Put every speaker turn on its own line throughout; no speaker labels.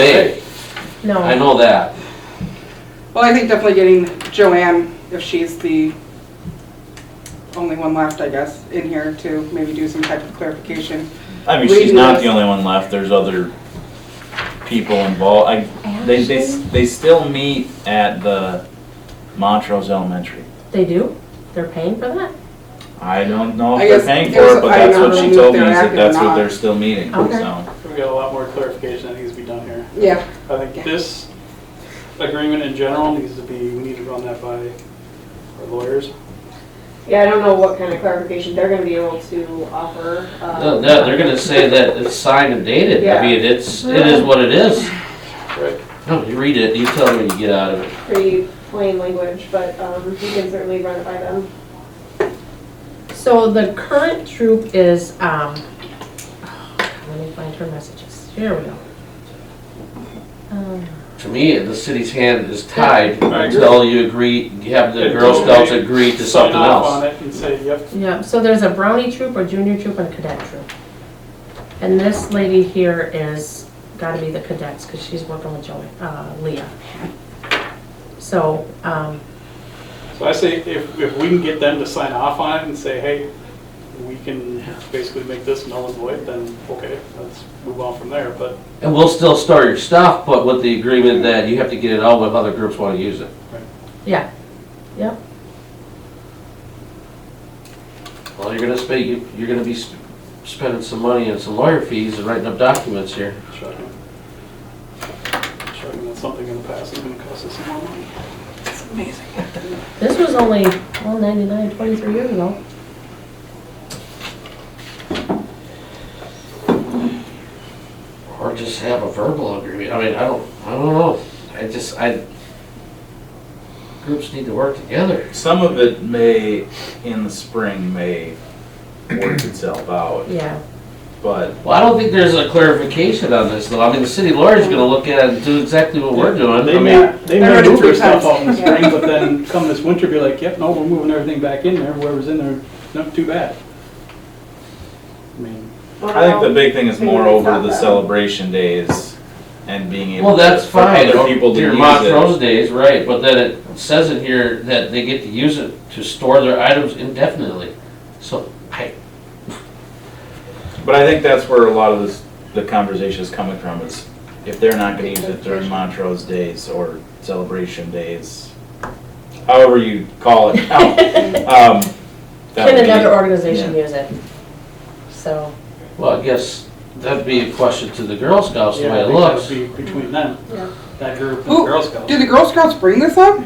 They,
No.
I know that.
Well, I think definitely getting Joanne, if she's the only one left, I guess, in here to maybe do some type of clarification.
I mean, she's not the only one left, there's other people involved, I, they, they, s- they still meet at the Montrose Elementary.
They do? They're paying for that?
I don't know
I
if they're
guess
paying
it was-
for it, but
I
that's
don't
what
know
she
if
told me,
they're
is that
active or
that's what
not.
they're still meeting,
Okay.
so.
We got a lot more clarification that needs to be done here.
Yeah,
I think this agreement in general needs to be, we need to run that by our lawyers.
Yeah, I don't know what kind of clarification they're gonna be able to offer. um,
No, no, They're gonna say that it's signed and dated. I
Yeah.
mean, it's, it is what it is.
Right.
No, you read it, you tell me when you get out of it.
Pretty plain language, but um, you can certainly run it by them.
So the current troop is, um, oh, let me find her messages. Here we go. Um,
To me, the city's hand is tied
I agree.
until you agree, you have the
Until
Girl Scouts
they
agree to
Sign
something
off on
else.
it and say, yep,
Yeah, so there's a brownie troop, a junior troop, and a cadet troop. And this lady here is, gotta be the cadets, because she's working with Joey, uh, Leah. So, um,
so I say, if, if we can get them to sign off on it and say, hey, we can basically make this null and void, then, okay, let's move on from there, but
And we'll still store your stuff, but with the agreement that you have to get it out if other groups wanna use it.
yeah, yep,
Well, you're gonna spend, you, you're gonna be sp- spending some money and some lawyer fees and writing up documents here.
shocking. Shocking that something in the past is gonna cost us some more money.
this was only, well, ninety-nine, twenty-three years ago.
Or just have a verbal agreement, I mean, I don't, I don't know, I just, I, groups need to work together.
Some of it may, in the spring, may work itself out,
Yeah,
but
Well, I don't think there's a clarification on this, though, I mean, the city lawyer's gonna look at it and do exactly what we're doing, I
They
mean,
may, they
I
may
read it
move
three
their stuff
times.
out in the spring, but then come this winter, be like, yep, no, we're moving everything back in there, whoever's in there, not too bad. I mean,
I think the big thing is
Maybe
more
that's
over
not
the
bad.
celebration days and being able.
well,
to-
that's
for
fine.
Other people to
Your
use
Montrose
it.
days, right, but then it says in here that they get to use it to store their items indefinitely, so, I,
But I think that's where a lot of this, the conversation is coming from is if they're not gonna use it during Montrose days or celebration days, however you call it now. um, that
can
would be-
another organization
yeah.
use it? So,
well, I guess that'd be a question to the Girl Scouts, the
yeah,
way
I
it
think that
looks.
would be between them,
Yeah.
that group and the
Who-
Girl Scouts.
did the Girl Scouts bring this up?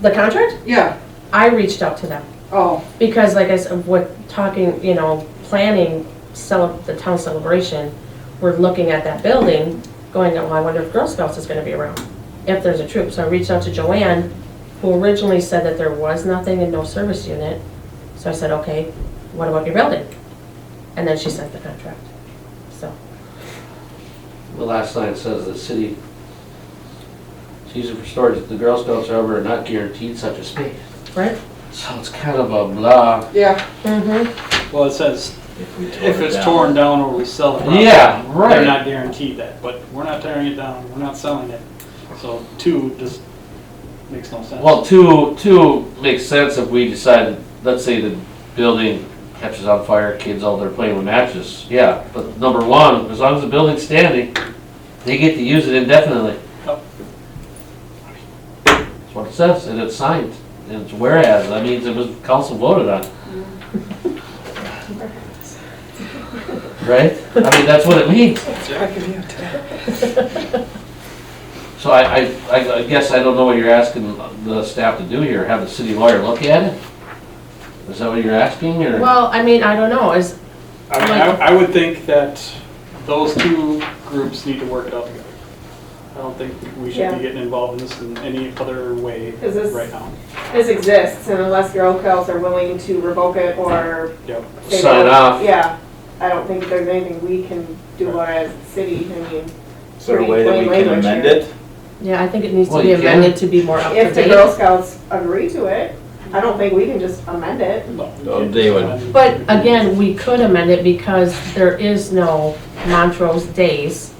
the contract,
Yeah,
I reached out to them.
oh,
Because like I said, with talking, you know, planning cele- the town celebration, we're looking at that building, going, well, I wonder if Girl Scouts is gonna be around, if there's a troop. So I reached out to Joanne, who originally said that there was nothing and no service unit. So I said, okay, what about your building? And then she sent the contract, so.
The last line says the city, it's used for storage, the Girl Scouts however are not guaranteed such a space.
Right.
So it's kind of a blah.
yeah,
Mm-hmm.
Well, it says,
If we tore
if
it
it's
down.
torn down or we sell it.
Yeah,
They're
right.
not guaranteed that, but we're not tearing it down, we're not selling it, so two just makes no sense.
Well, two, two makes sense if we decide, let's say the building catches on fire, kids out there playing with matches, yeah. But number one, as long as the building's standing, they get to use it indefinitely.
Yep.
That's what it says, and it's signed, and it's whereas, that means it was council voted on. Right? I mean, that's what it means. So I, I- I, I guess I don't know what you're asking the staff to do here, have the city lawyer look at it? Is that what you're asking, or?
Well, I mean, I don't know, is,
I mean, I, I would think that those two groups need to work it out together. I don't think we should
Yeah.
be getting involved in this in any other way
Is this-
right now.
This exists, and unless Girl Scouts are willing to revoke it or.
Yep.
they
Sign
don't-
off.
Yeah, I don't think there's anything we can do as a city, I mean,
Is there a way that we can
Language
amend
here.
it?
yeah, I think it needs to
Well,
be
you can.
amended to be more up to date.
if the Girl Scouts agree to it, I don't think we can just amend it.
Oh, they would.
But again, we could amend it because there is no Montrose Days